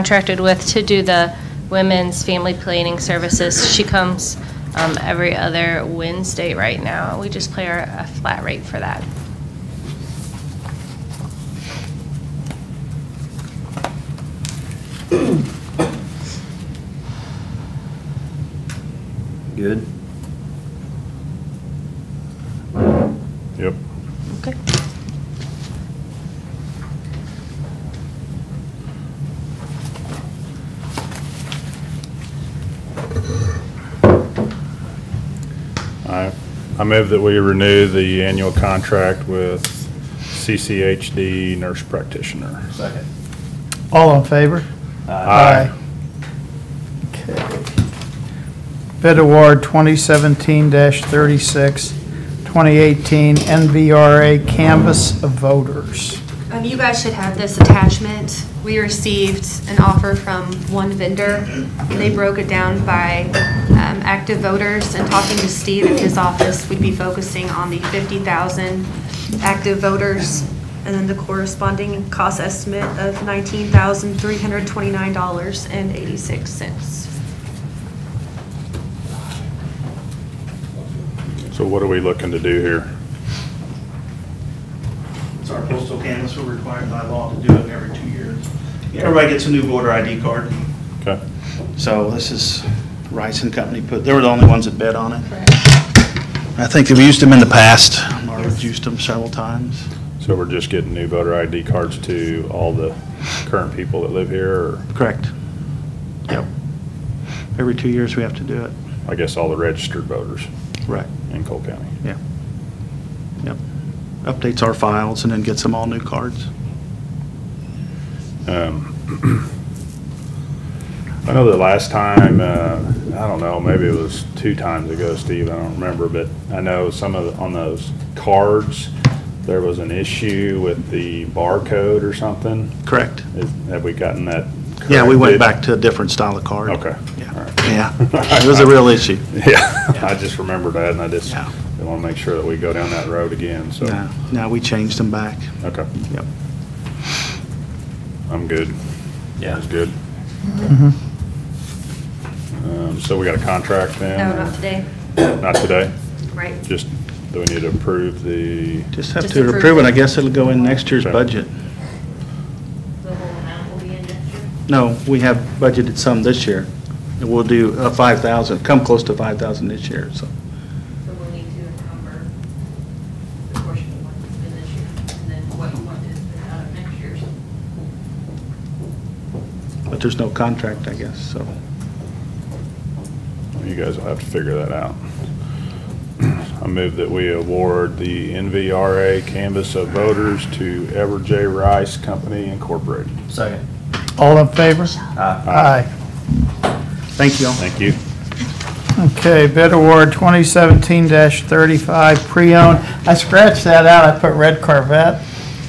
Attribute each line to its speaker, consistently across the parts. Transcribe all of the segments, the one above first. Speaker 1: contracted with to do the women's family planning services. She comes um, every other Wednesday right now. We just play her a flat rate for that.
Speaker 2: Good?
Speaker 3: Yep.
Speaker 1: Okay.
Speaker 3: I, I move that we renew the annual contract with CCHD nurse practitioner.
Speaker 2: Second.
Speaker 4: All in favor?
Speaker 3: Aye.
Speaker 4: Okay. Bid award 2017-36, 2018 NVRA Canvas of Voters.
Speaker 5: Um, you guys should have this attachment. We received an offer from one vendor. They broke it down by, um, active voters and talking to Steve in his office, we'd be focusing on the fifty thousand active voters and then the corresponding cost estimate of nineteen thousand three hundred twenty-nine dollars and eighty-six cents.
Speaker 3: So what are we looking to do here?
Speaker 6: It's our postal canvas, we're required by law to do it every two years. Everybody gets a new voter ID card.
Speaker 3: Okay.
Speaker 6: So this is Rice and Company put, they were the only ones that bid on it. I think they've used them in the past, Marvin's used them several times.
Speaker 3: So we're just getting new voter ID cards to all the current people that live here, or
Speaker 6: Correct. Yep. Every two years we have to do it.
Speaker 3: I guess all the registered voters
Speaker 6: Right.
Speaker 3: in Cole County?
Speaker 6: Yeah. Yep. Updates our files and then gets them all new cards.
Speaker 3: Um, I know that last time, uh, I don't know, maybe it was two times ago, Steve, I don't remember, but I know some of, the- on those cards, there was an issue with the barcode or something.
Speaker 6: Correct.
Speaker 3: Is- Have we gotten that corrected?
Speaker 6: Yeah, we went back to a different style of card.
Speaker 3: Okay. all
Speaker 6: Yeah.
Speaker 3: right.
Speaker 6: Yeah. It was a real issue.
Speaker 3: Yeah, I just remembered that, and I just
Speaker 6: Yeah.
Speaker 3: want to make sure that we go down that road again, so.
Speaker 6: No, no, we changed them back.
Speaker 3: Okay,
Speaker 6: Yep.
Speaker 3: I'm good.
Speaker 2: Yeah.
Speaker 3: That's good. Um, So we got a contract then?
Speaker 5: No,
Speaker 3: or-
Speaker 5: not today.
Speaker 3: Not today?
Speaker 5: Right.
Speaker 3: Just, do we need to approve the,
Speaker 6: Just have
Speaker 5: Just
Speaker 6: to
Speaker 5: approve
Speaker 6: approve it. I
Speaker 5: it.
Speaker 6: guess it'll go in next year's
Speaker 3: Okay.
Speaker 6: budget.
Speaker 7: The whole amount will be in next year?
Speaker 6: No, we have budgeted some this year. And we'll do uh, 5,000, come close to 5,000 this year, so.
Speaker 7: So we'll need to encumber the portion of what's been this year, and then what you want is out of next year's.
Speaker 6: But there's no contract, I guess, so.
Speaker 3: you guys will have to figure that out. I move that we award the NVRA Canvas of Voters to Ever J. Rice Company Incorporated.
Speaker 2: Second.
Speaker 4: All in favor?
Speaker 2: Aye.
Speaker 4: Aye.
Speaker 6: Thank you all.
Speaker 3: Thank you.
Speaker 4: Okay, bid award 2017-35 pre-owned. I scratched that out, I put red Corvette.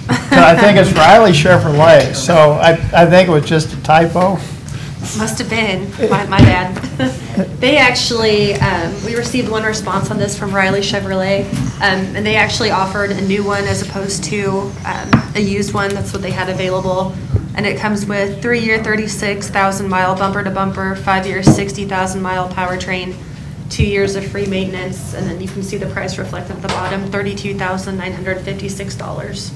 Speaker 4: I think it's Riley Chevrolet, so I, I think it was just a typo.
Speaker 5: Must have been, my, my bad. They actually, um, we received one response on this from Riley Chevrolet, um, and they actually offered a new one as opposed to, um, a used one, that's what they had available. And it comes with three-year, thirty-six thousand mile bumper to bumper, five-year, sixty thousand mile powertrain, two years of free maintenance, and then you can see the price reflected at the bottom, thirty-two thousand nine hundred fifty-six dollars.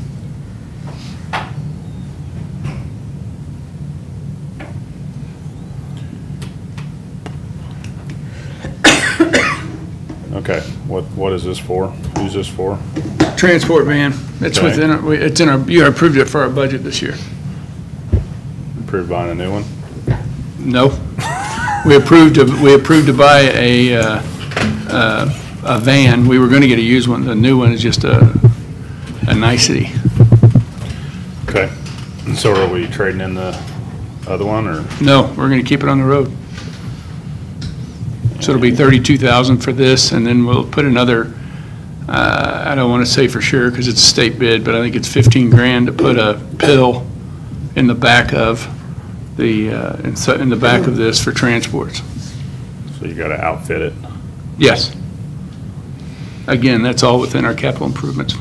Speaker 3: Okay, what, what is this for? Who's this for?
Speaker 8: Transport van. It's
Speaker 3: Okay.
Speaker 8: within, our- we- it's in our, you approved it for our budget this year.
Speaker 3: Approved buying a new one?
Speaker 8: No. We approved, to- we approved to buy a, uh, uh, a van. We were going to get a used one. The new one is just a, a nicety.
Speaker 3: Okay, so are we trading in the other one, or?
Speaker 8: No, we're going to keep it on the road. So it'll be 32,000 for this, and then we'll put another, uh, I don't want to say for sure because it's a state bid, but I think it's 15 grand to put a pill in the back of the, uh, in so- in the back of this for transports.
Speaker 3: So you gotta outfit it.
Speaker 8: Yes. Again, that's all within our capital improvements.